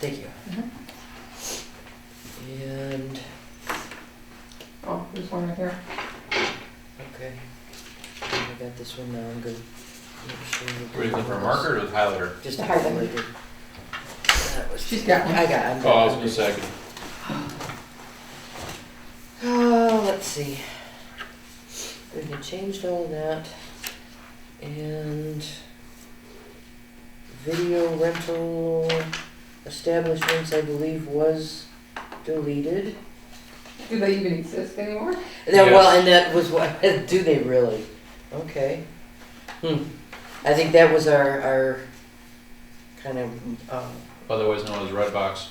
Thank you. Mhm. And, Oh, there's one right here. okay. I got this one now, I'm good. Make sure that- Were you looking for a marker or the highlighter? Just a The highlight. highlighter. That was- She's got one. I got, I'm. Oh, I was I'm gonna good. second. Uh, let's see. We've changed all that. And video rental establishments, I believe, was deleted. Do they even exist anymore? That, Well, Yes. and that was what, do they really? Okay. Hmm. I think that was our, our kind of, um, Otherwise known as red box.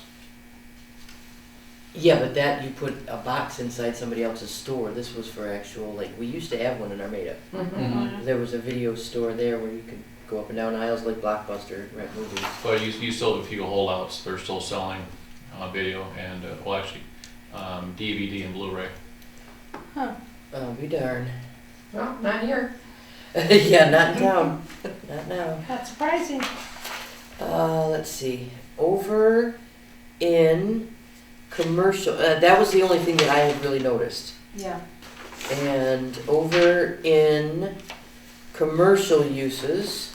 Yeah, but that you put a box inside somebody else's store. This was for actual like we used to have one in Armada. Mm-hmm. There was a video store there where you could go up and down aisles like Blockbuster, rent movies. But you, you still have a few holdouts. They're still selling uh, video and, uh, well, actually, um, DVD and Blu-ray. Oh, be darn. No, not here. yeah, not in town. not now. That's surprising. Uh, let's see. Over in commercial. Uh, that was the only thing that I had really noticed. Yeah. And over in commercial uses.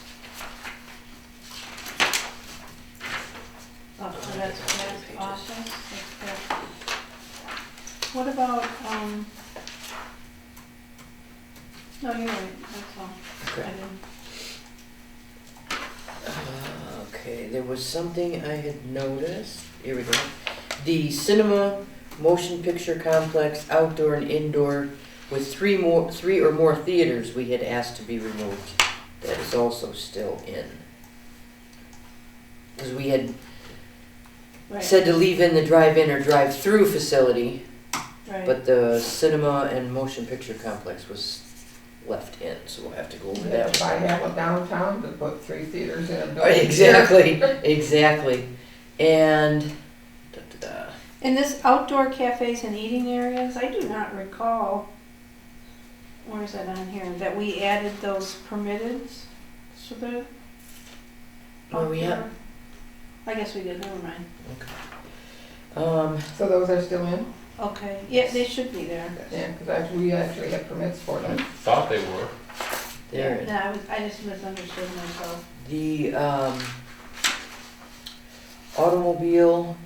Oh, so that's, that's awesome. That's good. What about, um, no, you're right, that's all. I Okay. didn't- uh, Okay, there was something I had noticed. Here we go. The cinema, motion picture complex, outdoor and indoor, with three more, three or more theaters we had asked to be removed. That is also still in. Because we had Right, said to leave in the drive-in or drive-through facility, right. but the cinema and motion picture complex was left in, so we'll have to go over They that. have to buy half of downtown to put three theaters in a building. Exactly, exactly. And da, da, da. And this outdoor cafes and eating areas, I do not recall, where is that on here, that we added those permitted, so that. Where Oh, we at? outdoor- I guess we did, never mind. Um, So those are still in? Okay, yeah, they should be there. Yeah, because we actually have permits for I them. thought they were. there it No, I was- I just misunderstood myself. the um, automobile,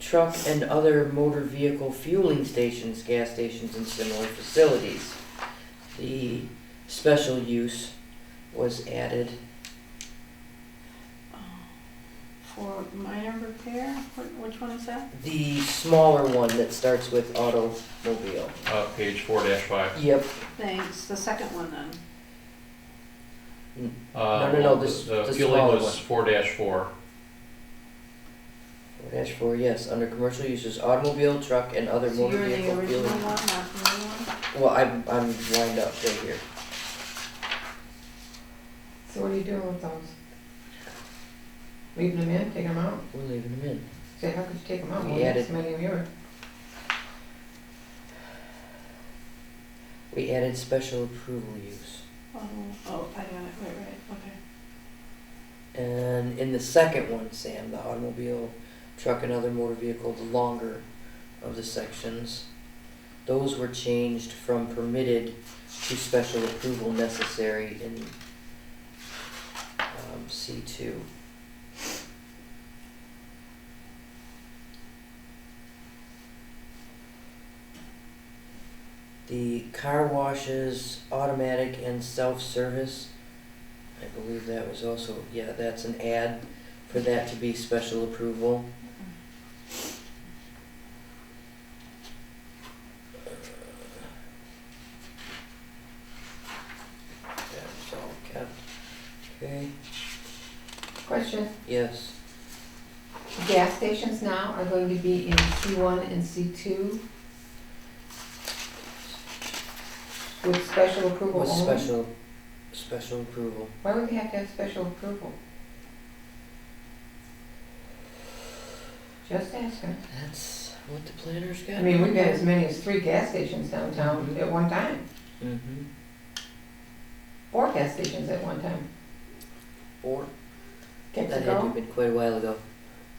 truck, and other motor vehicle fueling stations, gas stations, and similar facilities. The special use was added. For minor repair, Wh- which one is that? The smaller one that starts with automobile. Uh, page four dash five. Yep. Thanks, the second one then. No, no, no, this- The this fueling smaller Uh, was four dash four. Dash four, yes, under commercial uses, automobile, truck, and other So motor you're the vehicle original fueling. one, not the new one? Well, I'm, I'm lined up right here. So what are you doing with those? Leaving them in, taking them out? We're leaving them in. Say, how could you take them out? We Well, there's added- so many of you. We added special approval use. Oh, oh, I got it, right, right, okay. And in the second one, Sam, the automobile, truck, and other motor vehicle, the longer of the sections, those were changed from permitted to special approval necessary in um, C2. The car washes, automatic and self-service, I believe that was also, yeah, that's an ad for that to be special approval. That was all kept. Okay, Question, yes. gas stations now are going to be in C one and C two? With special approval With only? special, special approval. Why would they have to have special approval? Just asking. That's what the planners got. I mean, we've got as many as three gas stations downtown at one time, Mm-hmm. four gas stations at one time. Or, Get that to had to have go, been quite a while ago.